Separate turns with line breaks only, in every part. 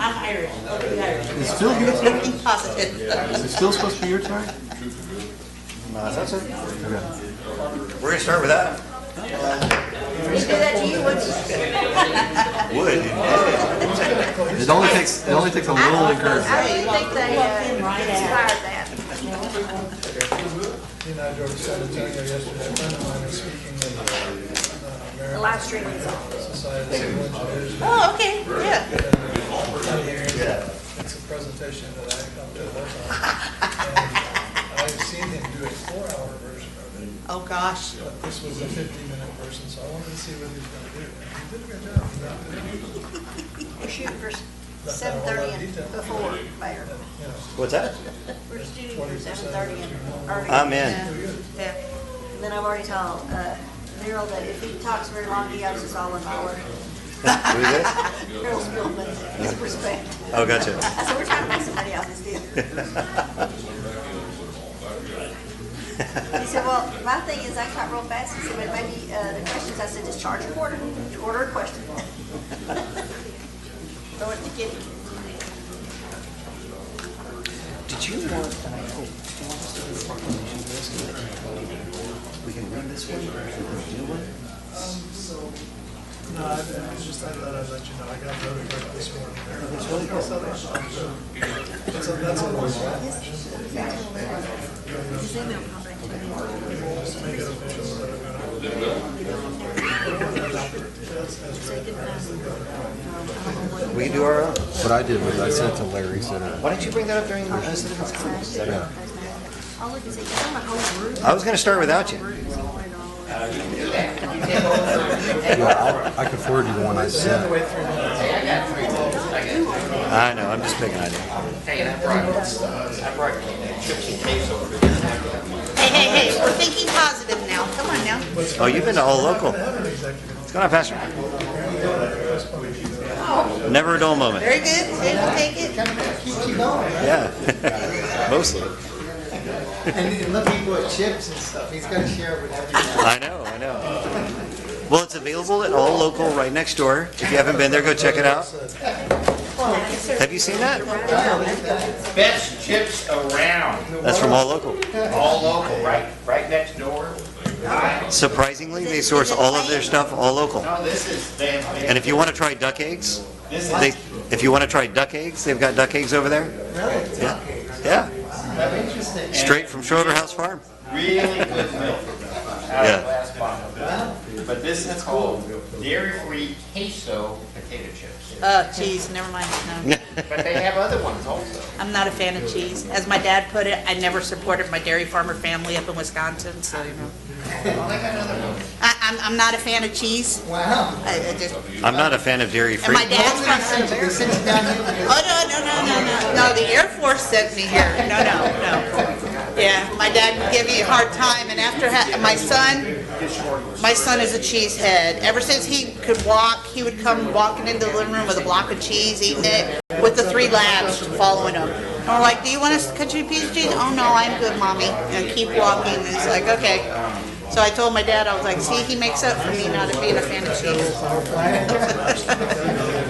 Irish, overly Irish.
It's still good.
Everything positive.
Is it still supposed to be your turn? No, that's it. Okay.
We're gonna start with that.
They do that to you once you.
Wood.
It only takes, it only takes a little encouragement.
I really think they uh,
in right
inspired that.
You and I drove to San Antonio yesterday, a friend of mine was speaking at uh,
The
American
live stream is on.
Society of Civil Engineers.
Oh, okay, yeah.
It's a presentation that I come to all the time. And I've seen him do a four-hour version of it,
Oh, gosh.
but this was a fifteen-minute version, so I wanted to see what he was gonna do. And he did a good job. He knocked it out.
We're shooting for seven thirty and before, Mayor.
You know,
What's that?
We're shooting for seven thirty and early.
I'm in.
Yeah. And Then I've already told uh, Daryl that if he talks very long, he owes us all an hour.
Who is it?
Daryl Spillman, his respect.
Oh, gotcha.
I said, we're trying to make somebody else's deal. He said, well, my thing is, I cut real fast, he said, but maybe uh, the questions, I said, just charge a quarter, quarter a question. Throw it to Kitty.
Did you want, oh, do you want us to do the proclamation list? We can read this one, we can do one.
No, I I was just, I thought I'd let you know, I got voted right this morning. That's a, that's a
We can do our own.
What I did was I sent to Larry uh, Center.
Why didn't you bring that up during the citizens conference?
I'll look and see, 'cause I'm a whole group.
I was gonna start without you.
I could forward you the one I sent.
I know, I'm just picking on you.
Hey, hey, hey, we're thinking positive now. Come on now.
Oh, you've been to all local. It's gone faster. Never a dull moment.
Very good. Take it, take it.
Yeah. Mostly.
And then let people at chips and stuff. He's got to share it with everyone.
I know, I know. Well, it's available at all local right next door. If you haven't been there, go check it out. Have you seen that?
Best chips around,
That's from all local.
all local, right, right next door.
Surprisingly, they source all of their stuff all local.
No, Oh, this is, they have,
And if you want to try duck eggs, they, if you want to try duck eggs, they've got duck eggs over there. Yeah, yeah,
Interesting.
straight from Schroeder House Farm.
really good milk out
Yeah.
of last bottle. But this is called dairy-free queso potato chips.
Uh, cheese, never mind, no.
But they have other ones also.
I'm not a fan of cheese. As my dad put it, I never supported my dairy farmer family up in Wisconsin, so, you know. I, I'm, I'm not a fan of cheese.
Wow.
I, I just,
I'm not a fan of dairy
and
free.
my dad's
They
from,
sent you- they sent you down here with
oh, no, no, no, no, no, no, the Air Force sent me here. No, no, no. Yeah, my dad would give me a hard time, and after, ha- my son, my son is a cheesehead. Ever since he could walk, he would come walking into the living room with a block of cheese, eating it, with the three labs following him. And we're like, "Do you want us to cut you a piece of cheese?" "Oh no, I'm good, mommy." And keep walking. And he's like, "Okay." So I told my dad, I was like, "See, he makes up for me not being a fan of cheese."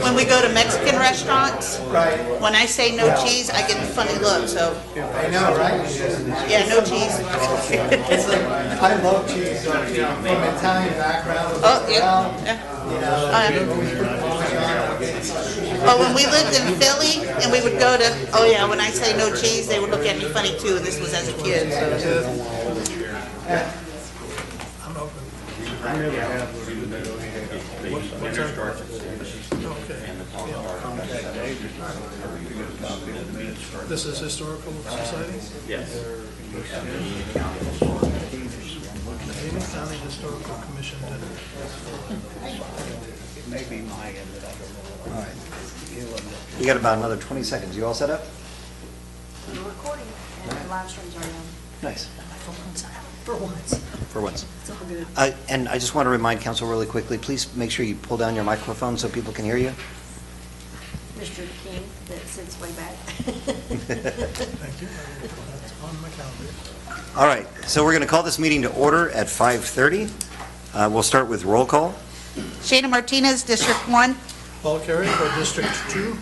when we go to Mexican restaurants, when I say no cheese, I get the funny look. So
it. I know, right?
yeah, no cheese.
It's like, I love cheese. From Italian background.
Oh yeah. yeah.
You know,
Oh, yeah.
we put Parmesan. It's-
But oh, when we lived in Philly and we would go to, oh yeah, when I say no cheese, they would look at me funny too, and this was as a kid. so.
I'm open. This is historical society? Yes. Amy County Historical Commission dinner.
You got about another 20 seconds. You all set up?
You're recording, and the live streams are on.
Nice.
For once.
For once.
It's all good.
I- And I just want to remind council really quickly, please make sure you pull down your microphone so people can hear you.
Mr. King, that sits way back.
Thank you. That's on my calendar.
All right, so we're going to call this meeting to order at 5:30. Uh, We'll start with roll call.
Shana Martinez, District One.
Paul Carey for District Two.